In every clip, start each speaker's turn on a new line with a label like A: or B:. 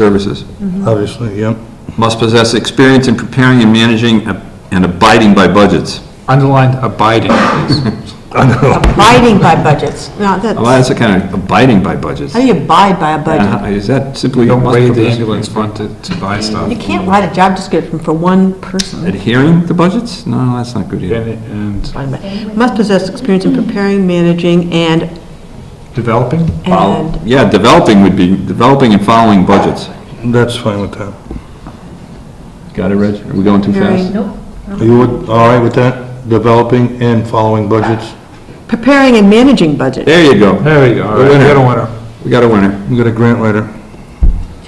A: services.
B: obviously, yep.
A: Must possess experience in preparing and managing and abiding by budgets. Oh,
C: Underlined abiding, please.
B: I know,
D: Abiding by budgets. No, that's,
A: Well,
D: how
A: that's a kind of abiding by budgets.
D: do you abide by a
C: Uh-huh.
D: budget?
A: Uh, Is that simply?
C: Don't
A: must
C: raid the
A: possess-
C: ambulance fund to, to buy stuff. Mm.
D: You can't write a job description for one person.
A: Adhering to budgets? No, that's not good either.
C: And- And
D: Must possess experience in preparing, managing, and,
C: developing?
A: Well,
D: and,
A: Yeah, developing would be, developing and following budgets.
B: that's fine with that.
A: Got it, Reg? Are we going too fast?
D: preparing
B: Are you with- all right with that? Developing and following budgets?
D: preparing and managing budget.
A: There you go.
C: There we go, all
A: The
C: right, we
A: winner.
C: got a winner.
A: We got a winner.
B: We got a grant writer.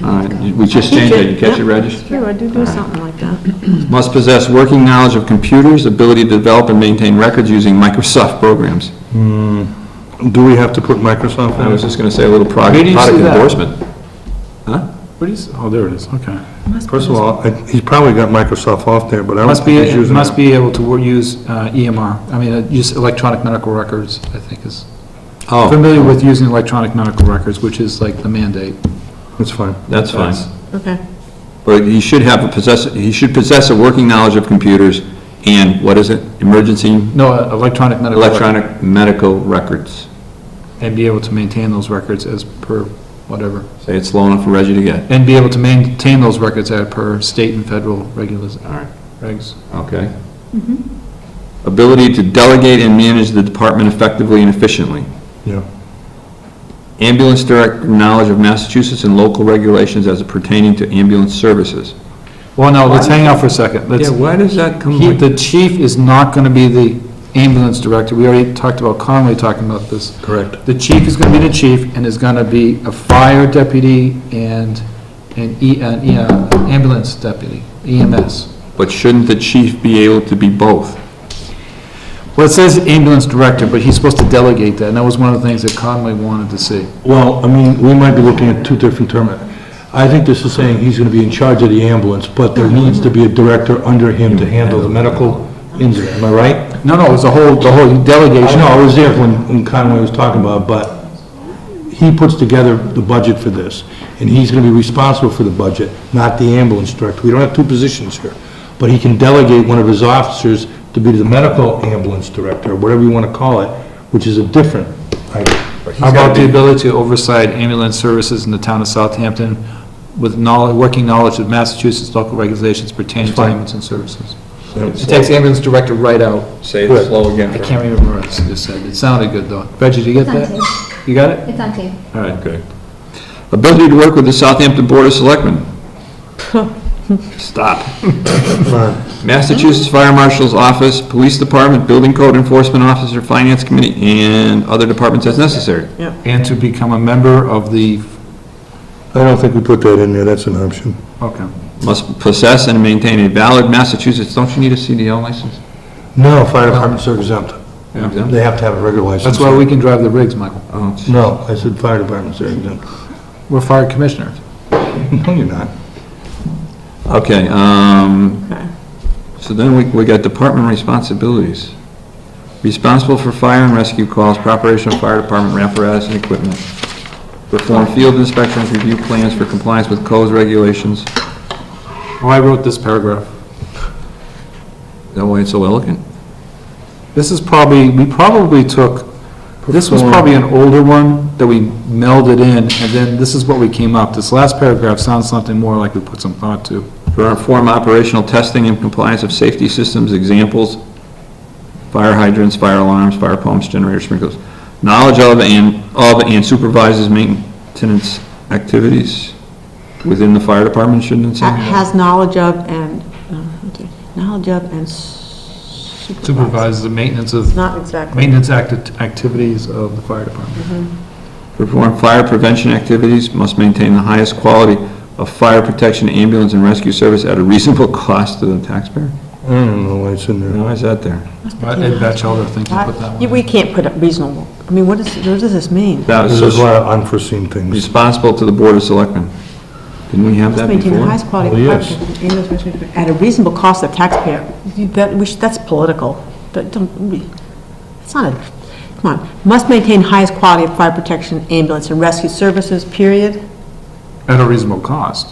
A: All right, you- we just changed it. You catch it, Reg?
D: Sure, I do do something like that.
A: Must possess working knowledge of computers, ability to develop and maintain records using Microsoft programs.
B: Do we have to put Microsoft
A: I was
B: in?
A: just going to say a little prog-
C: Where do you
A: product
C: see that?
A: endorsement. Huh?
C: What is, oh, there it is, okay.
B: First of all, I- he's probably got Microsoft off there, but I don't
C: Must be,
B: think he's
C: it
B: using
C: must
B: it.
C: be able to wo- use uh, EMR, I mean, uh, use electronic medical records, I think is,
A: Oh,
C: familiar with using electronic medical records, which is like the mandate.
B: It's fine.
A: that's fine.
D: Okay.
A: But he should have a possess, he should possess a working knowledge of computers and, what is it, emergency
C: No, uh, electronic medical. record.
A: electronic medical records.
C: And be able to maintain those records as per whatever.
A: Say it slow enough for Reggie to get.
C: And be able to maintain those records as per state and federal regulars, regs.
A: Okay. Ability to delegate and manage the department effectively and efficiently.
B: Yeah.
A: Ambulance direct knowledge of Massachusetts and local regulations as pertaining to ambulance services.
C: Well, no, let's hang out for a second. Let's,
A: Yeah, why does that come
C: he,
A: like?
C: the chief is not gonna be the ambulance director. We already talked about Conway talking about this.
B: Correct.
C: The chief is gonna be the chief and is gonna be a fire deputy and an E, an E- uh, ambulance deputy, E EMS.
A: But shouldn't the chief be able to be both?
C: Well, it says ambulance director, but he's supposed to delegate that, and that was one of the things that Conway wanted to see.
B: Well, I mean, we might be looking at two different terms. I think this is saying he's going to be in charge of the ambulance, but there needs to be a director under him to handle the medical incident, am I right?
C: No, no, it was the whole, the whole
B: I
C: delegation.
B: know, I was there when when Conway was talking about, it, but he puts together the budget for this, and he's going to be responsible for the budget, not the ambulance director. We don't have two positions here, but he can delegate one of his officers to be the medical ambulance director, whatever you want to call it, which is a different item.
C: How about the ability to oversight ambulance services in the town of Southampton with knowledge, working knowledge of Massachusetts local regulations pertaining to ambulance and services? It takes ambulance director right out.
A: Say
B: it
A: slow
C: I
A: again.
C: can't remember what I just said. It sounded good, though. Reggie, did you get
E: It's on tape.
C: that? You got it?
E: It's on tape.
C: All right.
A: Okay. Ability to work with the Southampton Board of Selectmen. Stop. Massachusetts Fire Marshal's Office, Police Department, Building Code Enforcement Officer, Finance Committee, and other departments as necessary.
C: And to become a member of the,
B: I don't think we put that in there, that's an option.
C: okay.
A: Must possess and maintain a valid Massachusetts, don't you need a CDL license?
B: No, fire departments are exempt.
C: Yeah.
B: They have to have a regular license.
C: That's why we can drive the rigs, Michael.
A: Oh, gee.
B: No, I said fire departments are exempt.
C: We're fire commissioners.
B: No, you're not.
A: Okay, um,
D: Okay.
A: so then we, we got department responsibilities. Responsible for fire and rescue calls, preparation of fire department apparatus and equipment. Perform field inspections, review plans for compliance with codes, regulations.
C: Oh, I wrote this paragraph.
A: That way it's so elegant.
C: This is probably, we probably took, this was probably an older one that we melded in, and then this is what we came up. This last paragraph sounds something more like we put some thought to.
A: Perform operational testing and compliance of safety systems, examples, fire hydrants, fire alarms, fire pumps, generator sprinklers. Knowledge of and, of and supervises maintenance activities within the fire department, shouldn't it
D: Ha-
A: say?
D: Has knowledge of and, uh, okay, knowledge of and supervise.
C: Supervise the maintenance of,
D: Not exactly.
C: maintenance act- activities of the fire department.
A: Perform fire prevention activities, must maintain the highest quality of fire protection, ambulance, and rescue service at a reasonable cost to the taxpayer?
B: I don't know why it's in there.
A: Why is that there?
C: Ed Batchelder, I think you put that
D: Yeah,
C: one.
D: We can't put it reasonable. I mean, what is, what does this mean?
A: That
B: There's a
A: was
B: lot of unforeseen things.
A: responsible to the Board of Selectmen. Didn't we have that
D: Must maintain the
A: before? Oh,
D: highest quality.
B: Well,
D: of
B: yes.
D: product and aim as much- At a reasonable cost to the taxpayer. You- That, we should- that's political. That don't, we, it's not a, come on. Must maintain highest quality of fire protection, ambulance, and rescue services, period.
C: at a reasonable cost.